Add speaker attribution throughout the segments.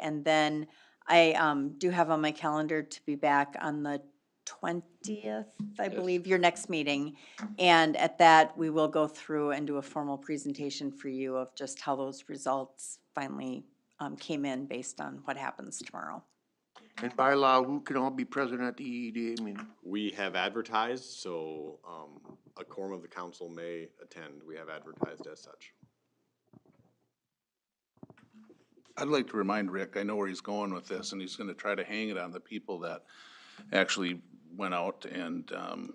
Speaker 1: And then I um, do have on my calendar to be back on the 20th, I
Speaker 2: Yes.
Speaker 1: believe, your next meeting. And at that, we will go through and do a formal presentation for you of just how those results finally um, came in based on what happens tomorrow.
Speaker 3: And by law, who can all be present at the E EED meeting?
Speaker 4: We have advertised, so um, a quorum of the council may attend. We have advertised as such.
Speaker 5: I'd like to remind Rick, I know where he's going with this, and he's gonna try to hang it on the people that actually went out and, um,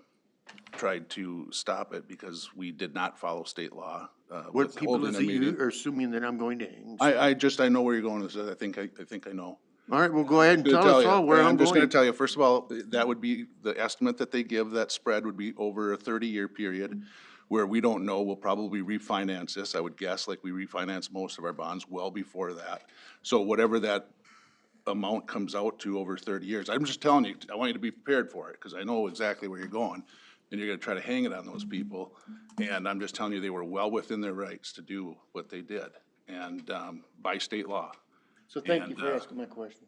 Speaker 5: tried to stop it because we did not follow state law. uh,
Speaker 3: What
Speaker 5: with
Speaker 3: people
Speaker 5: holding
Speaker 3: is
Speaker 5: a
Speaker 3: it you
Speaker 5: meeting.
Speaker 3: are assuming that I'm going to hang?
Speaker 5: I, I just, I know where you're going with this, I think, I, I think I know.
Speaker 3: All right, well, go ahead and
Speaker 5: Gonna
Speaker 3: tell us
Speaker 5: you,
Speaker 3: all where
Speaker 5: and
Speaker 3: I'm
Speaker 5: just gonna
Speaker 3: going.
Speaker 5: tell you, first of all, that would be, the estimate that they give, that spread would be over a thirty-year period where we don't know, we'll probably refinance this, I would guess, like we refinance most of our bonds well before that. So whatever that amount comes out to over thirty years, I'm just telling you, I want you to be prepared for it, because I know exactly where you're going. And you're gonna try to hang it on those people, and I'm just telling you, they were well within their rights to do what they did, and, um, by state law.
Speaker 3: So thank you
Speaker 5: and,
Speaker 3: for
Speaker 5: uh,
Speaker 3: asking my question.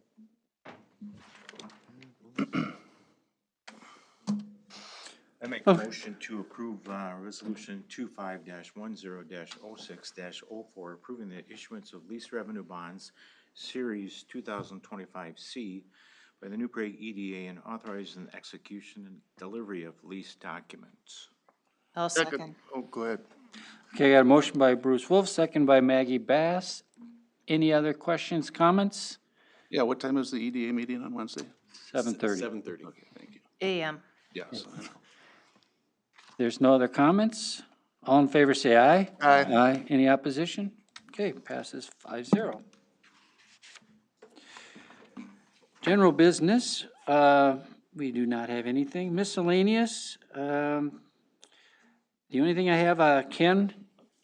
Speaker 6: I make a motion to approve, uh, resolution two five dash one zero dash oh six dash oh four, approving the issuance of lease revenue bonds, series two thousand twenty-five C by the New Prague EDA and authorizing the execution and delivery of lease documents.
Speaker 7: I'll second.
Speaker 3: Oh, go ahead.
Speaker 2: Okay, I got a motion by Bruce Wolf, second by Maggie Bass. Any other questions, comments?
Speaker 5: Yeah, what time is the EDA meeting on Wednesday?
Speaker 2: Seven thirty.
Speaker 4: Seven thirty.
Speaker 5: Okay, thank you.
Speaker 7: AM.
Speaker 5: Yes, I know.
Speaker 2: There's no other comments? All in favor, say aye.
Speaker 3: Aye.
Speaker 2: Aye. Any opposition? Okay, passes five zero. General business, uh, we do not have anything. Miscellaneous, um, the only thing I have, uh, Ken,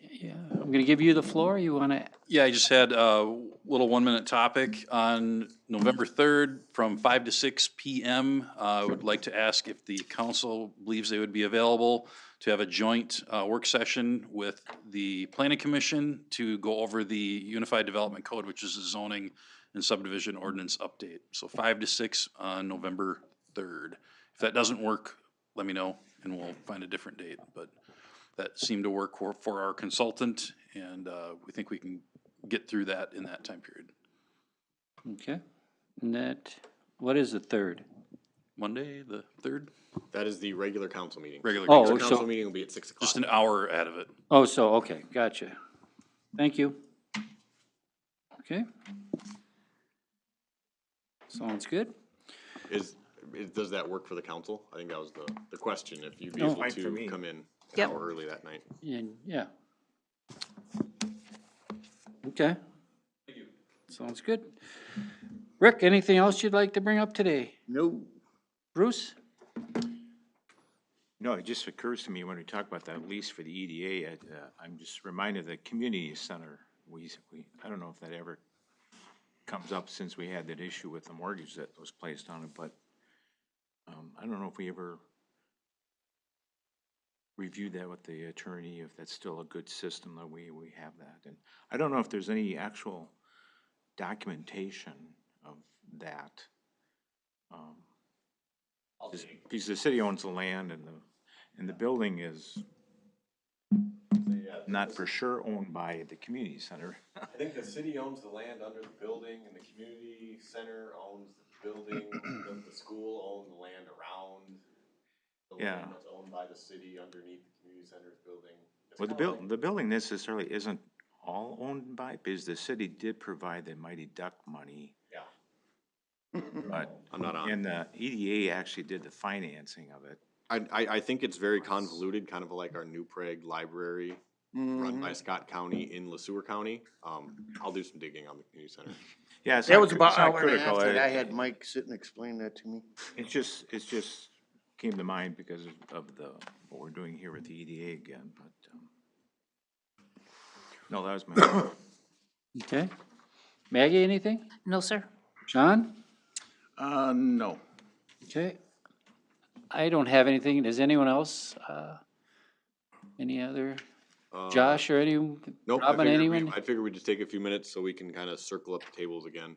Speaker 2: yeah, I'm gonna give you the floor. You wanna
Speaker 8: Yeah, I just had a little one-minute topic on November 3rd from 5 to 6 PM. Uh, I would like to ask if the council believes they would be available to have a joint uh, work session with the planning commission to go over the Unified Development Code, which is the zoning and subdivision ordinance update. So 5 to 6 on November 3rd. If that doesn't work, let me know and we'll find a different date. But that seemed to work for, for our consultant, and uh, we think we can get through that in that time period.
Speaker 2: Okay, and that, what is the third?
Speaker 8: Monday, the third,
Speaker 4: That is the regular council meeting.
Speaker 8: regular,
Speaker 2: Oh,
Speaker 4: Regular
Speaker 2: so-
Speaker 4: council meeting will be at six o'clock.
Speaker 8: just an hour out of it.
Speaker 2: Oh, so, okay, gotcha. Thank you. Okay. Sounds good.
Speaker 4: Is, is- does that work for the council? I think that was the, the question, if you'd be
Speaker 2: No.
Speaker 4: able
Speaker 6: Fine for
Speaker 4: to
Speaker 6: me.
Speaker 4: come in an
Speaker 7: Yep.
Speaker 4: hour early that night.
Speaker 2: And, yeah. Okay. Thank you. Sounds good. Rick, anything else you'd like to bring up today?
Speaker 3: No.
Speaker 2: Bruce?
Speaker 6: No, it just occurs to me when we talk about that lease for the EDA, it, uh, I'm just reminded of the community center. We, we, I don't know if that ever comes up since we had that issue with the mortgage that was placed on it, but um, I don't know if we ever reviewed that with the attorney, if that's still a good system that we, we have that. And I don't know if there's any actual documentation of that. Um, just- Because the city owns the land and the, and the building is not for sure owned by the community center.
Speaker 4: I think the city owns the land under the building, and the community center owns the building, the school owns the land around. The
Speaker 6: Yeah.
Speaker 4: land that's owned by the city underneath the community center's building. It's
Speaker 6: Well, the
Speaker 4: kinda
Speaker 6: buil,
Speaker 4: like-
Speaker 6: the building necessarily isn't all owned by, because the city did provide the mighty duck money.
Speaker 4: Yeah.
Speaker 6: But,
Speaker 4: I'm not on.
Speaker 6: and the EDA actually did the financing of it.
Speaker 4: I, I, I think it's very convoluted, kind of like our New Prague Library,
Speaker 3: Mm-hmm.
Speaker 4: run by Scott County in LeSueur County. Um, I'll do some digging on the community center.
Speaker 6: Yeah, it's
Speaker 3: That
Speaker 6: not
Speaker 3: was
Speaker 6: cri-
Speaker 3: about
Speaker 6: it's not
Speaker 3: hour and a half that
Speaker 6: critical. It-
Speaker 3: I had Mike sit and explain that to me.
Speaker 6: It's just, it's just came to mind because of the, what we're doing here with the EDA again, but, um, no, that was my.
Speaker 2: Okay. Maggie, anything?
Speaker 7: No, sir.
Speaker 2: John?
Speaker 5: Uh, no.
Speaker 2: Okay. I don't have anything. Does anyone else? uh, Any other?
Speaker 4: Uh,
Speaker 2: Josh or any?
Speaker 4: Nope, I
Speaker 2: Robin,
Speaker 4: figured we-
Speaker 2: anyone?
Speaker 4: I figured we'd just take a few minutes so we can kind of circle up the tables again.